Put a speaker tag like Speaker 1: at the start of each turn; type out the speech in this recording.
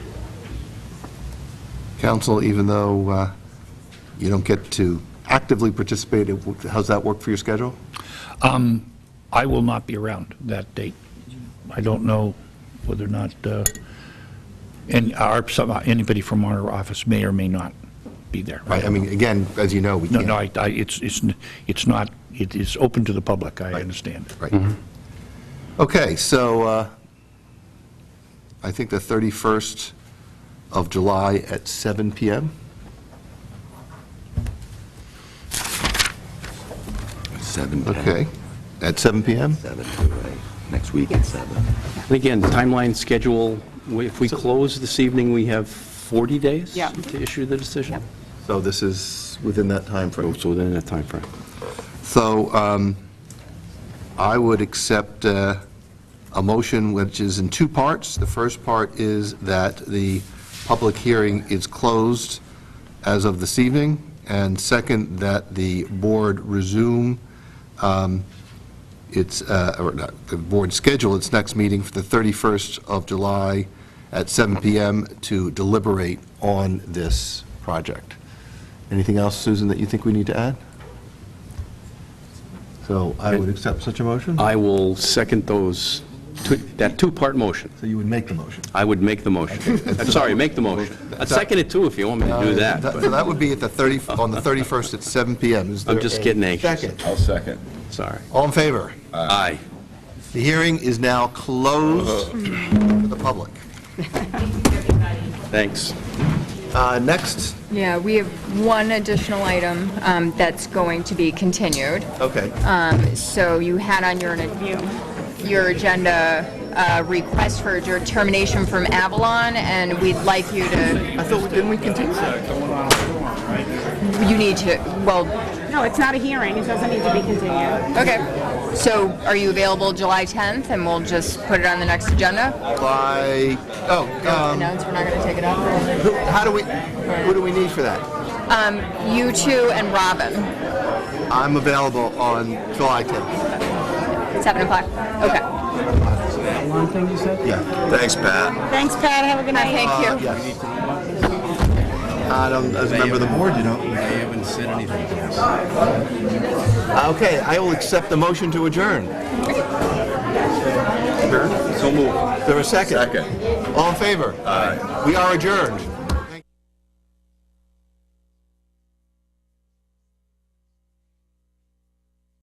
Speaker 1: council, even though uh, you don't get to actively participate. It wo- How's that work for your schedule?
Speaker 2: I will not be around that date. I don't know whether or not, uh, and our, some- anybody from our office may or may not be there.
Speaker 1: Right, I mean, again, as you know, we
Speaker 2: No,
Speaker 1: can't.
Speaker 2: no, I, I- it's, it's, n- it's not, it is open to the public, I understand.
Speaker 3: Mm-hmm.
Speaker 1: Right. Okay, so uh, I think the 31st of July at seven PM?
Speaker 3: Seven.
Speaker 1: Okay, at seven PM?
Speaker 3: Seven, right. Next week at seven.
Speaker 4: And again, timeline, schedule, we- if we close this evening, we have 40 days
Speaker 5: Yeah.
Speaker 4: to issue the decision?
Speaker 1: So this is within that
Speaker 3: Oh,
Speaker 1: timeframe.
Speaker 4: So within that timeframe.
Speaker 1: So um, I would accept uh, a motion which is in two parts. The first part is that the public hearing is closed as of this evening, and second, that the board resume um, its, uh, or not, the board schedule its next meeting for the 31st of July at 7 PM to deliberate on this project. Anything else, Susan, that you think we need to add? So I would accept such a motion?
Speaker 4: I will second those, two- that two-part motion.
Speaker 1: So you would make the motion?
Speaker 4: I would make the motion. I'm sorry, make the motion. I'd second it too if you want me to do that,
Speaker 1: So
Speaker 4: but
Speaker 1: Uh, that would be at the 30, on the 31st at 7 PM. Is
Speaker 4: I'm
Speaker 1: there
Speaker 4: just
Speaker 1: a
Speaker 4: getting anxious.
Speaker 1: Second.
Speaker 3: I'll second.
Speaker 4: sorry.
Speaker 1: All in favor?
Speaker 4: Aye.
Speaker 1: The hearing is now closed to the public.
Speaker 4: Thanks.
Speaker 1: Uh, Next,
Speaker 5: Yeah, we have one additional item um, that's going to be continued.
Speaker 1: okay.
Speaker 5: So you had on your, your agenda, uh, request for your termination from Avalon, and we'd like you to,
Speaker 1: I thought, didn't we continue?
Speaker 5: you need to, well,
Speaker 6: No, it's not a hearing, it doesn't need to be continued.
Speaker 5: okay. So are you available July 10th, and we'll just put it on the next agenda?
Speaker 1: By, oh, um,
Speaker 5: Announce we're not going to take it up?
Speaker 1: who- how do we, what do we need for that?
Speaker 5: You two and Robin,
Speaker 1: I'm available on July 10th.
Speaker 5: 7 o'clock? Okay.
Speaker 1: Yeah. Thanks, Pat.
Speaker 6: Thanks, Pat, have a good night.
Speaker 5: Uh, Thank you.
Speaker 1: Yes. I don't, as a member of the board, you don't.
Speaker 3: I haven't said anything to us.
Speaker 1: Okay, I will accept the motion to adjourn. So moved. Is there a second? Second. All in favor? Aye. We are adjourned.